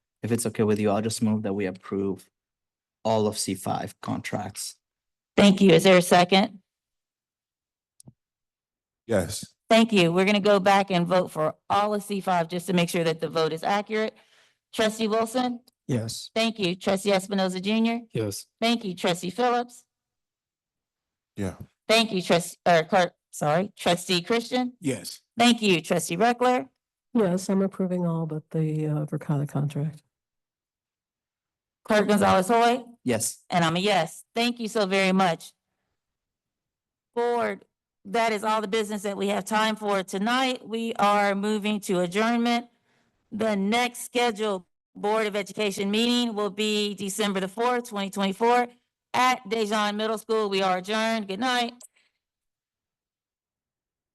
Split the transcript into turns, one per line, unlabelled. if it's okay with you, I'll just move that we approve all of C five contracts.
Thank you. Is there a second?
Yes.
Thank you. We're going to go back and vote for all of C five just to make sure that the vote is accurate. Trustee Wilson,
Yes.
thank you. Trustee Espinoza Junior,
Yes.
thank you. Trustee Phillips,
Yeah.
thank you. Trust, or clerk, sorry, trustee Christian,
Yes.
thank you. Trustee Reckler,
Yes, I'm approving all but the uh, Verkada contract.
clerk Gonzalez Hoy,
Yes.
and I'm a yes. Thank you so very much. Board, that is all the business that we have time for tonight. We are moving to adjournment. The next scheduled Board of Education meeting will be December the fourth, twenty twenty-four at Dejan Middle School. We are adjourned. Good night.